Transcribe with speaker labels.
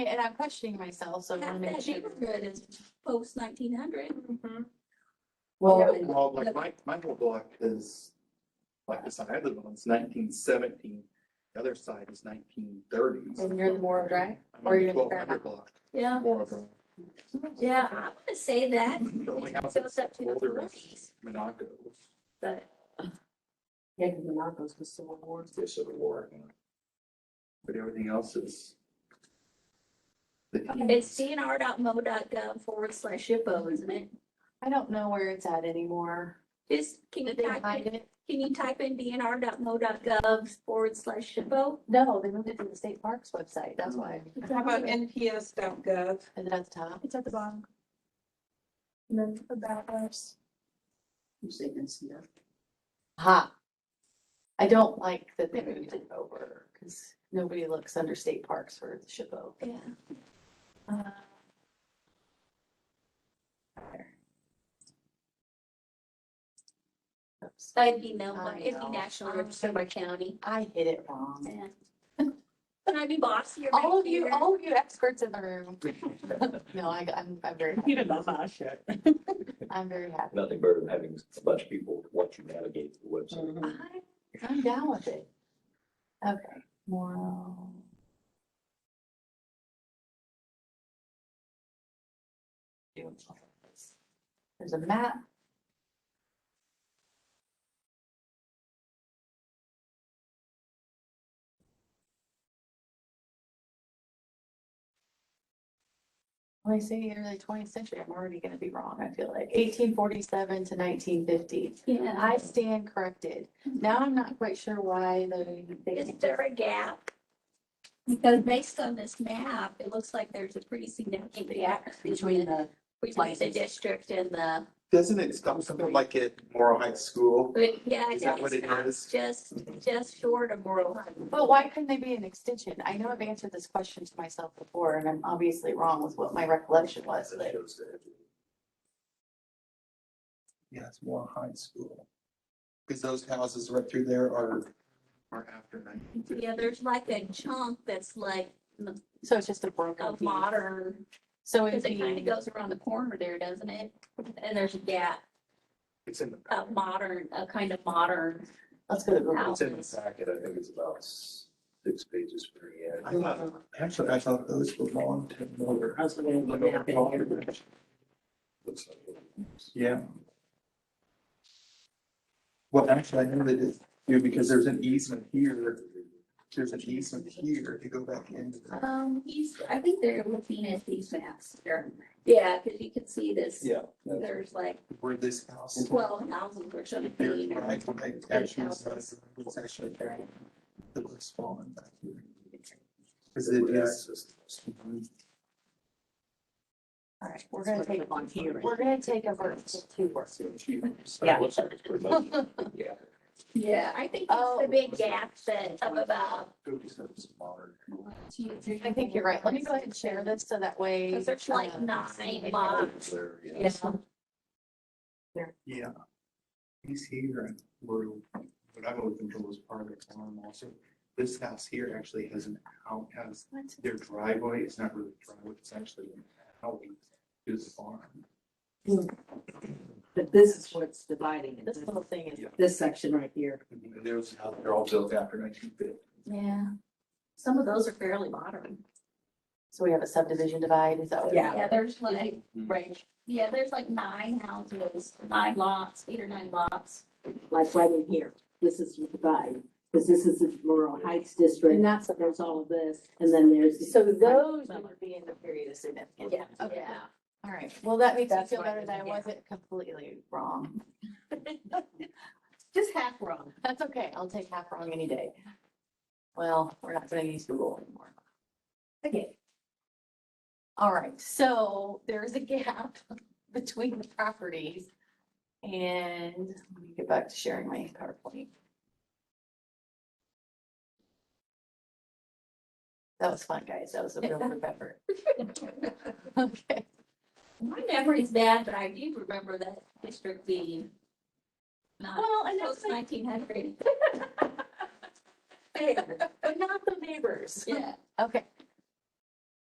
Speaker 1: And I'm questioning myself, so I want to make
Speaker 2: That
Speaker 1: sure.
Speaker 2: neighborhood is post nineteen hundred.
Speaker 1: Mhm.
Speaker 3: Well,
Speaker 2: Yeah.
Speaker 4: Well, like my, my whole block is, like the side I live on is nineteen seventeen, the other side is nineteen thirties.
Speaker 1: And you're the Morrow Drive? or you're in the
Speaker 4: Twelve hundred
Speaker 1: Fairmont?
Speaker 4: block,
Speaker 2: Yeah,
Speaker 4: Morrow Drive.
Speaker 2: yeah, I want to say that.
Speaker 4: The only
Speaker 2: Goes
Speaker 4: house that's
Speaker 2: up to the
Speaker 4: older is
Speaker 2: forties,
Speaker 4: Monaco,
Speaker 2: but
Speaker 3: yeah, because the Narcos was civil war.
Speaker 4: the Civil War. But everything else is. the
Speaker 2: it's dnr.mo.gov forward slash SHPO, isn't it?
Speaker 1: I don't know where it's at anymore.
Speaker 2: Just, can you
Speaker 1: Did they
Speaker 2: type,
Speaker 1: hide
Speaker 2: in-
Speaker 1: it?
Speaker 2: can you type in dnr.mo.gov forward slash SHPO?
Speaker 1: No, they moved it to the state parks website, that's why.
Speaker 5: How about NPS.gov?
Speaker 1: And then at the top,
Speaker 6: It's at the bottom. And then about us.
Speaker 3: You say NCF.
Speaker 1: ha. I don't like that they moved it over, because nobody looks under state parks for the SHPO.
Speaker 2: Yeah.
Speaker 1: Uh, oops.
Speaker 2: That'd be no,
Speaker 1: I
Speaker 2: it'd be
Speaker 1: know.
Speaker 2: national
Speaker 1: I
Speaker 2: registered by county.
Speaker 1: I hit it wrong.
Speaker 2: Yeah. Can I be bossy around
Speaker 1: All of you,
Speaker 2: here?
Speaker 1: all of you experts in the room. No, I, I'm, I'm very, happy. I'm very happy.
Speaker 7: nothing better than having a bunch of people watch you navigate the website.
Speaker 2: I-
Speaker 1: I'm down with it. Okay, Morrow. There's a map. When I say early twentieth century, I'm already gonna be wrong, I feel like eighteen forty-seven to nineteen fifty. And
Speaker 2: Yeah,
Speaker 1: I stand corrected. Now I'm not quite sure why the,
Speaker 2: is
Speaker 1: they,
Speaker 2: there a gap? Because based on this map, it looks like there's a pretty significant gap between the,
Speaker 3: the.
Speaker 2: between the
Speaker 3: places.
Speaker 2: district and the,
Speaker 4: Doesn't it stop something like at Morrow High School?
Speaker 2: but yeah.
Speaker 4: Is that what it
Speaker 2: it's
Speaker 4: is?
Speaker 2: Just, just short of rural.
Speaker 1: but why couldn't they be an extension? I know I've answered this question to myself before and I'm obviously wrong with what my recollection was, but
Speaker 4: Yeah, it's Morrow High School. Because those houses right through there are. Are after nineteen fifty.
Speaker 2: Yeah, there's like a chunk that's like
Speaker 1: so it's just a broken
Speaker 2: a
Speaker 1: piece.
Speaker 2: modern,
Speaker 1: So it'd
Speaker 2: because it kind of
Speaker 1: be,
Speaker 2: goes around the corner there, doesn't it? And there's a gap,
Speaker 4: It's in the.
Speaker 2: a modern, a kind of modern
Speaker 1: let's go to Google.
Speaker 2: house.
Speaker 7: It's in the packet, I think it's about s- six pages per year.
Speaker 4: I thought- Actually, I thought those belonged to Miller.
Speaker 3: I was looking at the map in here.
Speaker 7: Looks like it.
Speaker 4: Yeah. Well, actually, I know that it's, you know, because there's an easement here, there's an easement here to go back into the.
Speaker 2: Um, he's, I think they're looking at these maps here. Yeah, because you can see this,
Speaker 4: Yeah.
Speaker 2: there's like
Speaker 4: Where this house.
Speaker 2: twelve houses or
Speaker 4: There's
Speaker 2: something. or-
Speaker 4: right, right, actually, it's it's actually very, it was fallen back here. Cause it is.
Speaker 1: All right, we're gonna take,
Speaker 3: on here.
Speaker 1: we're gonna take a verse to two words.
Speaker 3: Yeah.
Speaker 7: Yeah.
Speaker 2: Yeah, I think
Speaker 1: Oh.
Speaker 2: it's the big gap that of about,
Speaker 1: I think you're right. Let me go ahead and share this so that way.
Speaker 2: because there's like
Speaker 1: uh,
Speaker 2: nine lots.
Speaker 7: There, yeah.
Speaker 2: Yeah,
Speaker 4: Yeah. He's here and we're, what I've always been told is part of the farm also. This house here actually has an out, has
Speaker 1: what?
Speaker 4: their driveway is not really a driveway, it's actually an alley to the farm.
Speaker 3: But this is what's dividing it.
Speaker 1: This little thing is,
Speaker 3: This section right here.
Speaker 4: And there's, they're all built after nineteen fifty.
Speaker 2: yeah. Some of those are fairly modern.
Speaker 1: so we have a subdivision divide, is that what?
Speaker 3: Yeah.
Speaker 2: Yeah, there's like,
Speaker 3: Right.
Speaker 2: yeah, there's like nine houses, nine lots, eight or nine lots.
Speaker 3: Like right in here. This is the divide, because this is the Laurel Heights district.
Speaker 1: And that's,
Speaker 3: There's all of this, and then there's.
Speaker 1: so those would be in the period of significance.
Speaker 2: Yeah,
Speaker 1: Okay.
Speaker 2: yeah.
Speaker 1: All right, well, that makes me
Speaker 3: That's
Speaker 1: feel
Speaker 3: what I
Speaker 1: better that I
Speaker 3: did, yeah.
Speaker 1: wasn't completely wrong.
Speaker 3: Just half wrong.
Speaker 1: That's okay, I'll take half wrong any day. Well, we're not gonna use Google anymore.
Speaker 3: Okay.
Speaker 1: All right, so there's a gap between the properties. And let me get back to sharing my PowerPoint. That was fun, guys, that was a real group effort. Okay,
Speaker 2: My memory's bad, but I do remember that district being not
Speaker 1: well, and that's
Speaker 2: post
Speaker 1: like,
Speaker 2: nineteen hundred.
Speaker 1: but not the neighbors.
Speaker 2: Yeah,
Speaker 1: Okay,